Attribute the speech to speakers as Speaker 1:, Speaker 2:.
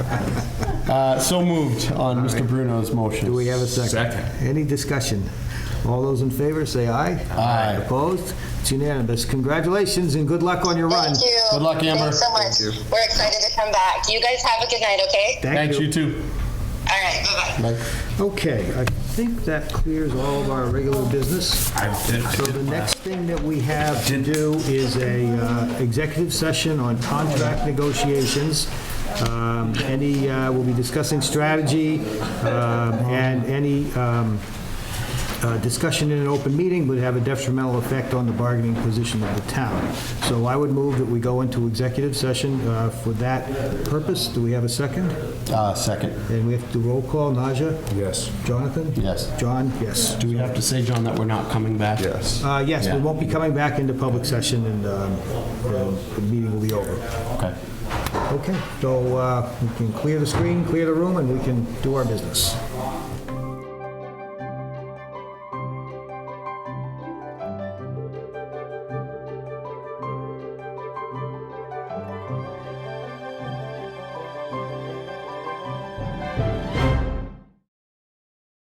Speaker 1: Uh, So moved on Mr. Bruno's motion.
Speaker 2: Do we have a second?
Speaker 3: Second.
Speaker 2: Any discussion? All those in favor, say aye.
Speaker 1: Aye.
Speaker 2: Opposed? It's unanimous. Congratulations and good luck on your run.
Speaker 4: Thank you.
Speaker 1: Good luck, Amber.
Speaker 4: Thanks so much. We're excited to come back. You guys have a good night, okay?
Speaker 1: Thanks, you too.
Speaker 4: All right, bye-bye.
Speaker 2: Okay, I think that clears all of our regular business. So the next thing that we have to do is a uh, executive session on contract negotiations. Um, Any, uh, we'll be discussing strategy um, and any um, uh, discussion in an open meeting would have a detrimental effect on the bargaining position of the town. So I would move that we go into executive session uh, for that purpose. Do we have a second?
Speaker 1: Uh, Second.
Speaker 2: And we have to do roll call. Naja?
Speaker 3: Yes.
Speaker 2: Jonathan?
Speaker 1: Yes.
Speaker 2: John? Yes.
Speaker 1: Do we have to say, John, that we're not coming back?
Speaker 3: Yes.
Speaker 2: Uh, Yes, we
Speaker 1: Yeah.
Speaker 2: won't be coming back into public session, and um, the the meeting will be over.
Speaker 1: Okay.
Speaker 2: Okay, so uh, we can clear the screen, clear the room, and we can do our business.